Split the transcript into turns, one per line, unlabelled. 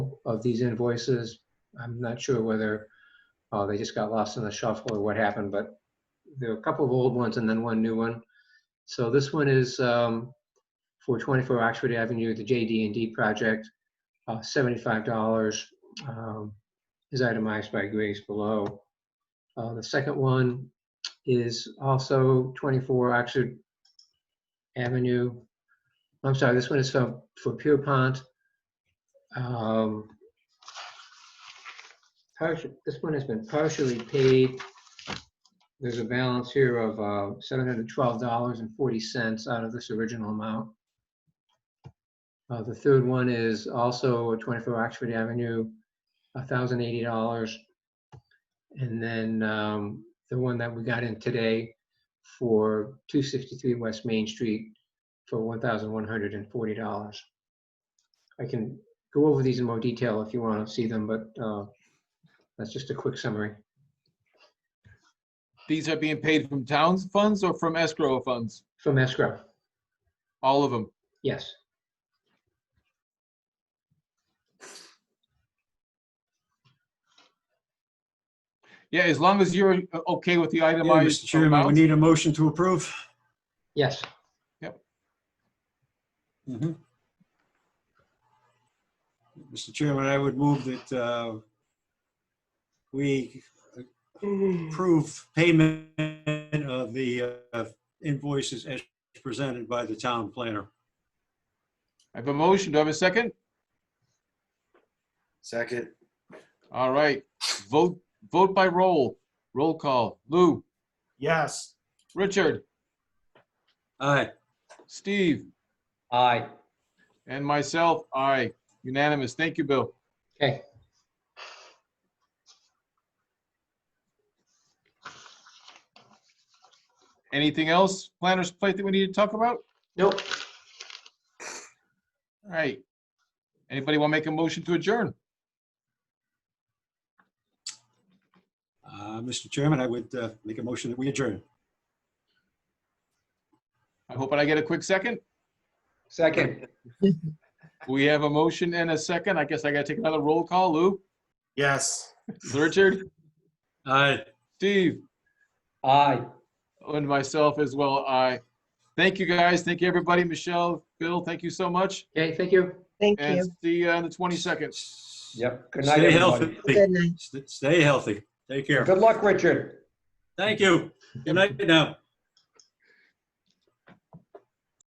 of these invoices. I'm not sure whether uh, they just got lost in the shuffle or what happened, but there are a couple of old ones and then one new one. So this one is um, for 24 Oxford Avenue, the JD&D project, uh, $75 um, is itemized by Grace below. Uh, The second one is also 24 Oxford Avenue. I'm sorry, this one is from, for Pierpont. Um, partial- This one has been partially paid. There's a balance here of uh, $712.40 out of this original amount. Uh, The third one is also 24 Oxford Avenue, $1,080. And then um, the one that we got in today for 263 West Main Street for $1,140. I can go over these in more detail if you want to see them, but uh, that's just a quick summary.
These are being paid from town's funds or from escrow funds?
From escrow,
All of them.
yes.
Yeah, as long as you're uh, okay with the
Yeah,
itemized.
Mr. Chairman, we
amounts.
need a motion to approve.
Yes,
Mhm. Mr. Chairman, I would move that uh, we approve payment of the uh, invoices as presented by the town planner.
I have a motion. Do I have a second?
Second,
All right. Vote, vote by roll. Roll call. Lou,
yes,
Richard,
Aye.
Steve,
aye,
and myself. Aye. Unanimous. Thank you, Bill.
okay.
Anything else, planner's plate that we need to talk about?
Nope,
All right. Anybody want to make a motion to adjourn?
Uh, Mr. Chairman, I would uh, make a motion that we adjourn.
I hope I get a quick second.
second,
We have a motion and a second. I guess I gotta take another roll call. Lou,
yes.
Richard,
Aye.
Steve,
aye.
and myself as well. I thank you guys. Thank you, everybody. Michelle, Bill, thank you so much.
okay, thank you.
Thank
And
you.
see you on the 22nd.
Yep, good night,
Stay
everybody.
healthy.
Good night.
St- Stay healthy. Take care.
Good luck, Richard.
Thank you. Good night now.